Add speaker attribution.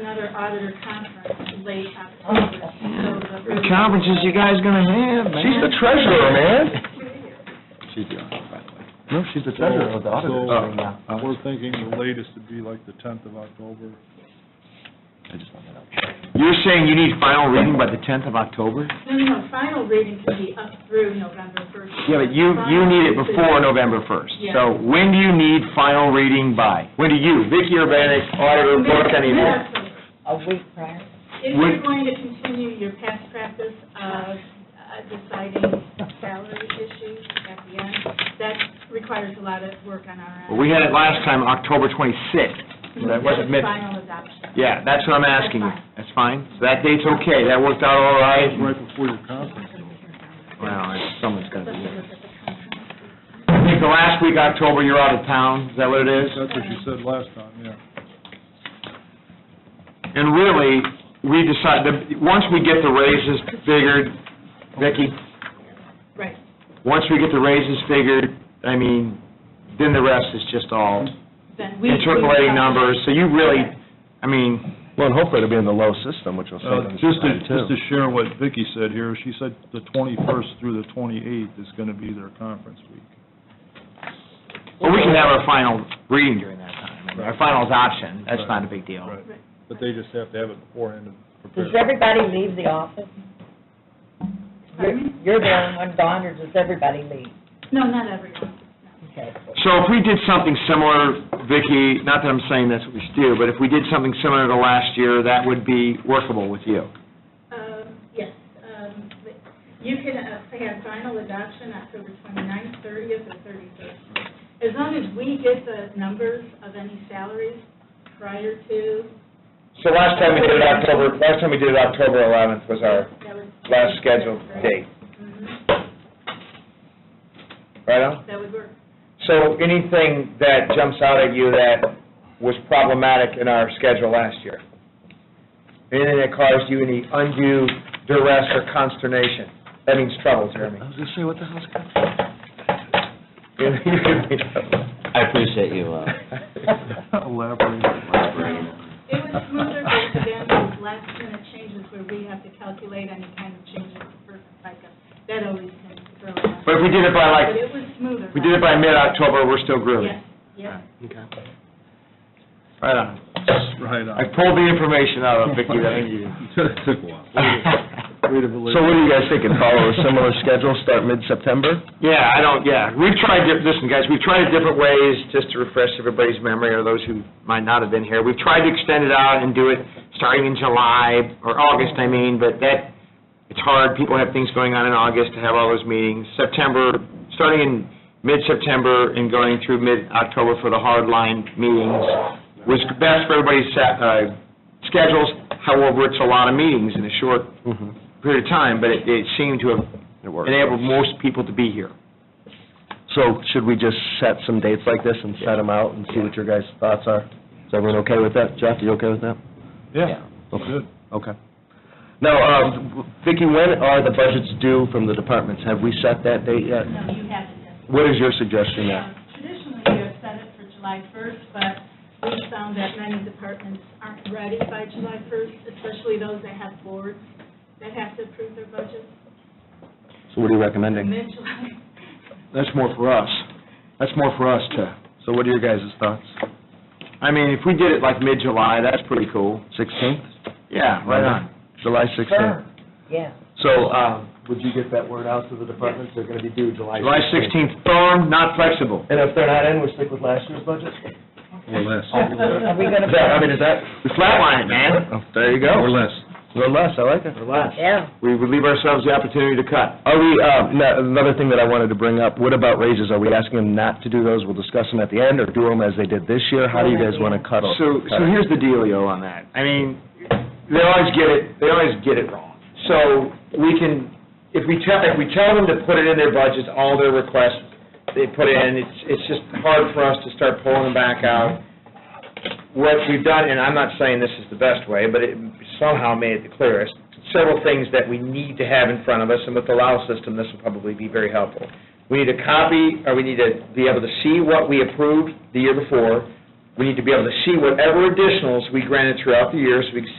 Speaker 1: another auditor conference late October. so the-
Speaker 2: What conferences you guys gonna have, man?
Speaker 3: She's the treasurer, man. She's the auditor, by the way. No, she's the treasurer Oh. of the
Speaker 4: So-
Speaker 3: auditor.
Speaker 4: so We're thinking the latest would be like the tenth of October.
Speaker 3: You're saying you need final reading by the tenth of October?
Speaker 1: No, no, no, final reading can be up through November first.
Speaker 3: Yeah, but you, you need it before November first. So when do you need final reading by? When do you, Vicki Urbanek, auditor, Board of County Engineer?
Speaker 1: Mid-October.
Speaker 5: A week prior?
Speaker 1: If
Speaker 3: Would-
Speaker 1: you're going to continue your past practice of uh, deciding salary issues at the end, that requires a lot of work on our end.
Speaker 3: Well, we had it last time, October twenty-sixth. That wasn't mid,
Speaker 1: Final adoption.
Speaker 3: yeah, that's what I'm asking you. That's fine? So that date's okay, that worked out all right?
Speaker 4: It's right before your conference.
Speaker 3: Well, it's- someone's gonna be there. I think the last week, October, you're out of town, is that what it is?
Speaker 4: That's what you said last time, yeah.
Speaker 3: And really, we decide, the- once we get the raises figured, Vicki,
Speaker 1: Right.
Speaker 3: once we get the raises figured, I mean, then the rest is just all
Speaker 1: Then we-
Speaker 3: interpolating numbers, so you really, I mean,
Speaker 6: Well, and hopefully it'll be in the low system, which will
Speaker 4: Uh,
Speaker 6: save them
Speaker 4: Just to,
Speaker 6: some
Speaker 4: just to
Speaker 6: time, too.
Speaker 4: share what Vicki said here, she said the twenty-first through the twenty-eighth is gonna be their conference week.
Speaker 3: well, we can have our final reading during that time. I mean, Our final adoption, that's not a big deal.
Speaker 4: Right. But they just have to have it beforehand to
Speaker 5: Does
Speaker 4: prepare.
Speaker 5: everybody leave the office? You're, you're the only one gone, or does everybody leave?
Speaker 1: No, not everyone.
Speaker 5: Okay.
Speaker 3: So if we did something similar, Vicki, not that I'm saying that's what we should do, but if we did something similar to last year, that would be workable with you.
Speaker 1: Um, Yes. um, but You can uh, have final adoption October 29th, 30th, or 31st. As long as we get the numbers of any salaries prior to,
Speaker 3: So last time we did it October, last time we did it October 11th was our
Speaker 1: that was...
Speaker 3: last scheduled date,
Speaker 1: Mhm,
Speaker 3: right on?
Speaker 1: That would work.
Speaker 3: So anything that jumps out at you that was problematic in our schedule last year? Anything that caused you any undue duress or consternation? That means trouble, Jeremy.
Speaker 6: I was gonna say, what the hell's going
Speaker 7: I appreciate you, uh,
Speaker 4: Elaborate.
Speaker 7: elaborating.
Speaker 1: It was smoother back then, those last minute changes where we have to calculate any kind of changes for FICA. That always tends to throw it out.
Speaker 3: But if we did it
Speaker 1: But
Speaker 3: by like,
Speaker 1: it was smoother.
Speaker 3: we did it by mid-October, we're still grooving.
Speaker 1: Yes, yes.
Speaker 3: Right on.
Speaker 4: Right
Speaker 3: I
Speaker 4: on.
Speaker 3: pulled the information out of Vicki that I needed.
Speaker 4: Took a while. Way to belabor.
Speaker 6: So what do you guys think, and follow a similar schedule, start mid-September?
Speaker 3: Yeah, I don't, yeah, we've tried, di- listen, guys, we've tried it different ways, just to refresh everybody's memory, or those who might not have been here. We've tried to extend it out and do it starting in July, or August, I mean, but that, it's hard, people have things going on in August to have all those meetings. September, starting in mid-September and going through mid-October for the hard line meetings was best for everybody's sa- uh, schedules, however, it's a lot of meetings in a short period of time, but it it seemed to have
Speaker 6: Mm-hmm. It works.
Speaker 3: enable most people to be here.
Speaker 6: So should we just set some dates like this and set them out and see what your guys' thoughts are? Is everyone okay with that? Jeff, you okay with that?
Speaker 4: Yeah,
Speaker 6: Okay.
Speaker 4: good.
Speaker 6: Okay. Now, um, Vicki, when are the budgets due from the departments? Have we set that date yet?
Speaker 1: No, you haven't done
Speaker 6: What is your suggestion there?
Speaker 1: Yeah, Traditionally, you have set it for July 1st, but we found that many departments aren't ready by July 1st, especially those that have boards that have to approve their budgets
Speaker 6: So what are you recommending?
Speaker 1: mid-July.
Speaker 3: That's more for us. That's more for us to,
Speaker 6: So what are your guys' thoughts?
Speaker 3: I mean, if we did it like mid-July, that's pretty cool.
Speaker 6: Sixteenth?
Speaker 3: Yeah, right on.
Speaker 6: July sixteenth?
Speaker 5: Yeah.
Speaker 6: So,
Speaker 3: uh,
Speaker 6: um, would you get that word out to the departments? They're gonna be due July
Speaker 3: July 16th, firm, not flexible.
Speaker 6: And if they're not in, we stick with last year's budget?
Speaker 4: Or less.
Speaker 5: Are we gonna?
Speaker 6: Is that, I mean, is that?
Speaker 3: We flatline it, man.
Speaker 6: There you go.
Speaker 4: Or less.
Speaker 6: Or less, I like it.
Speaker 5: Yeah.
Speaker 3: We would leave ourselves the opportunity to cut.
Speaker 6: Are we, uh, no- another thing that I wanted to bring up, what about raises? Are we asking them not to do those? We'll discuss them at the end, or do them as they did this year? How do you guys wanna cut them?
Speaker 3: So, so here's the dealio on that. I mean, they always get it, they always get it wrong. So we can, if we tell, if we tell them to put it in their budgets, all their requests they put in, it's, it's just hard for us to start pulling them back out. What we've done, and I'm not saying this is the best way, but it somehow made it the clearest, several things that we need to have in front of us, and with the LAO system, this will probably be very helpful. We need a copy, or we need to be able to see what we approved the year before, We need to be able to see whatever additionals we granted throughout the year, so we can see